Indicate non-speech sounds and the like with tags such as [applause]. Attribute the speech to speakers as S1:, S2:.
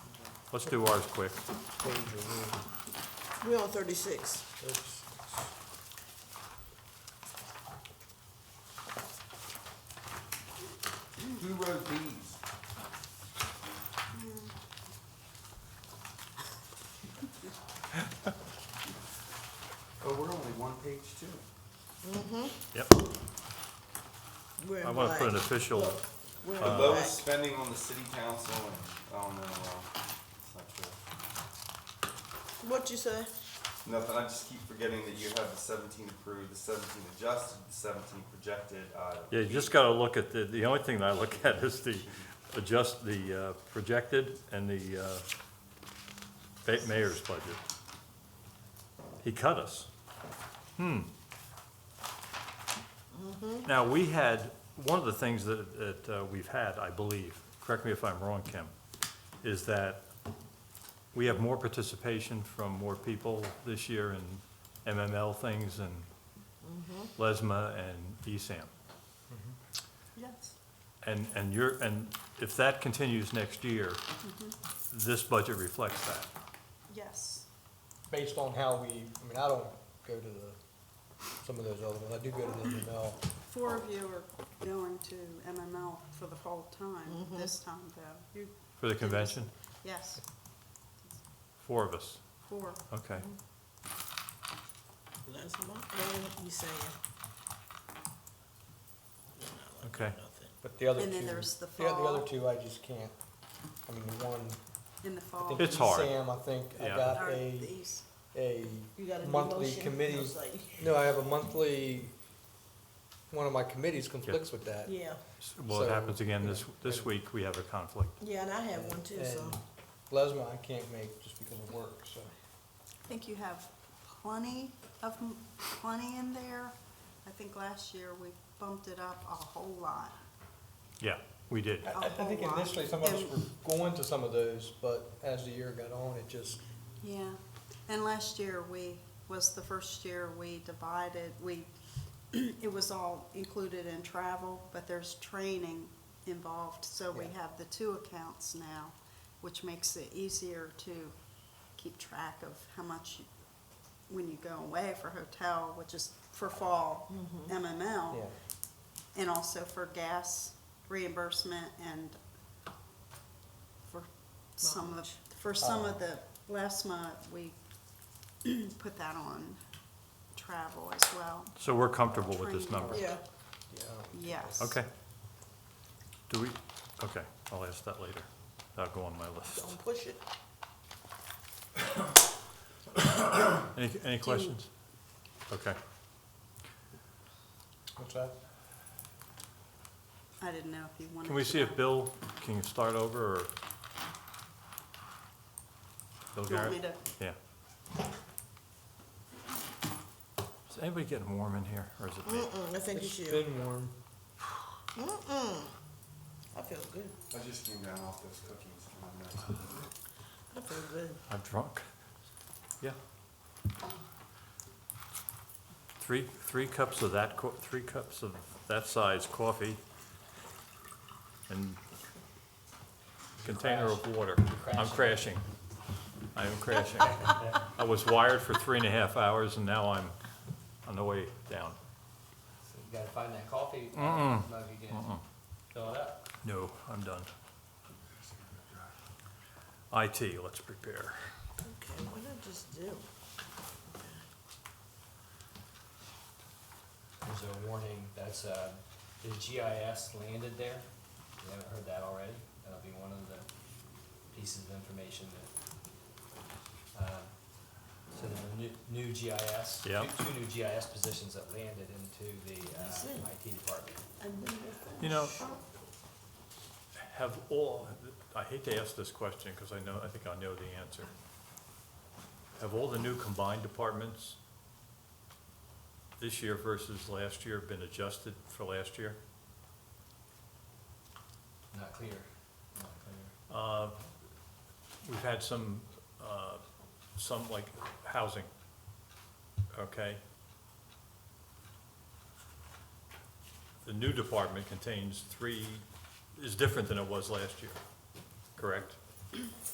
S1: Let's do ours quick.
S2: page or
S3: We're on thirty-six.
S2: whatever.
S4: Who wrote these? [laughs] Oh, we're only one page two.
S1: Yep.
S3: We're in
S1: I want to put an
S3: black.
S1: official,
S3: We're in
S4: The
S3: black.
S4: lowest spending on the city council and, oh no, well, it's not true.
S3: What you say?
S4: Nothing, I just keep forgetting that you have the seventeen approved, the seventeen adjusted, the seventeen projected, uh,
S1: yeah, you just got to look at the, the only thing that I look [laughs] at is the, adjust the uh, projected and the uh, ba- mayor's budget. He cut us. Hmm. Now, we had, one of the things that, that uh, we've had, I believe, correct me if I'm wrong, Kim, is that we have more participation from more people this year in MML things and LESMA and E ESAM.
S3: Yes.
S1: And, and you're, and if that continues next year,
S5: Mm-hmm.
S1: this budget reflects that.
S5: Yes.
S2: Based on how we, I mean, I don't go to the, some of those other ones, I do go to the ML.
S5: Four of you are going to MML for the whole time, this time though. You,
S1: For the convention,
S5: yes,
S1: four of us,
S5: four.
S1: okay.
S3: That's my thing, you saying. You're not looking
S1: Okay.
S3: at nothing.
S2: But the other two.
S5: And then there's the
S2: Yeah, the other
S5: fall.
S2: two, I just can't, I mean, the one,
S5: In the
S2: I
S5: fall.
S2: think.
S1: It's hard.
S2: Sam, I think I
S1: Yeah.
S2: got
S5: Or
S2: a,
S5: the east.
S2: a,
S3: You got a new
S2: Monthly
S3: motion?
S2: committee.
S3: Looks like-
S2: no, I have a monthly, one of my committees conflicts with that.
S3: Yeah,
S1: S- Well, it
S2: So,
S1: happens again this,
S2: yeah.
S1: this week, we have a conflict.
S3: yeah, and I have one too, so.
S2: And Lesma, I can't make just because of work, so.
S5: I think you have plenty of, m- plenty in there. I think last year we bumped it up a whole lot.
S1: Yeah, we did.
S2: I, I I think
S5: Oh, wow.
S2: initially some of us were going to some of those, but as the year got on, it just,
S5: Yeah, and last year we, was the first year we divided, we, [clears throat] it was all included in travel, but there's training involved, so we
S2: Yeah.
S5: have the two accounts now, which makes it easier to keep track of how much, you- when you go away for hotel, which is for fall MML,
S2: Mm-hmm. yeah.
S5: and also for gas reimbursement and for some of, for some of the, last month, we [clears throat] put that on travel as well,
S1: So we're comfortable with this number.
S3: Yeah,
S2: Yeah, I don't-
S5: yes.
S1: Okay. Do we, okay, I'll ask that later. That'll go on my list.
S3: don't push it.
S1: Any, any questions? Okay,
S2: What's that?
S5: I didn't know if you wanted.
S1: can we
S5: to
S1: see if
S5: go-
S1: Bill can start over, or? Bill
S5: Do you want
S1: Garrett?
S5: me to,
S1: Yeah. Is anybody getting warm in here, or is it me?
S3: Mm-mm, I think you
S2: It's
S3: should.
S2: been warm.
S3: Mm-mm. I feel good.
S4: I just came down off those cookies. and I'm not-
S3: I feel good.
S1: I'm drunk? Yeah. Three, three cups of that, co- three cups of that size coffee and container of water. I'm crashing. I am crashing. I was wired for three and a half hours, and now I'm on the way down.
S6: So you gotta find that coffee
S1: Mm-mm.
S6: mug again.
S1: Mm-mm.
S6: Fill it up.
S1: No, I'm done. IT, let's prepare.
S3: Okay, what did I just do?
S6: There's a warning that's uh, the GIS landed there. You haven't heard that already. That'll be one of the pieces of information that. Uh, so there's a new, new GIS.
S1: Yep.
S6: Two, two new GIS positions that landed into the
S3: That's it.
S6: uh, IT department.
S3: I knew that.
S1: You know, have all, I hate to ask this question because I know, I think I know the answer. Have all the new combined departments this year versus last year been adjusted for last year?
S6: Not clear. Not clear.
S1: Uh, We've had some, uh, some like housing, okay? The new department contains three, is different than it was last year, correct?